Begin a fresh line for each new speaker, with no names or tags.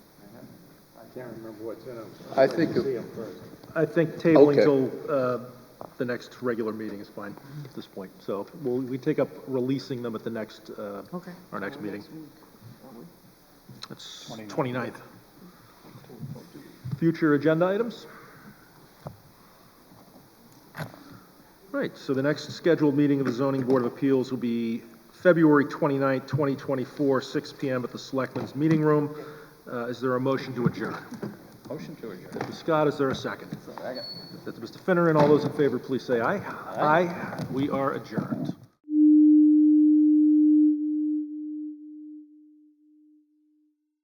can't remember what's in them.
I think it-
See 'em first.
I think tabling
Okay.
till uh, the next regular meeting is fine at this point. So we'll, we take up releasing them at the next, uh,
Okay.
our next meeting. It's 29th. Future agenda items? Right, so the next scheduled meeting of the Zoning Board of Appeals will be February 29th, 2024, 6 PM at the Selectmen's Meeting Room. Uh, Is there a motion to adjourn?
Motion to adjourn.
Mr. Scott, is there a second? That's Mr. Finneran. All those in favor, please say aye. Aye. We are adjourned.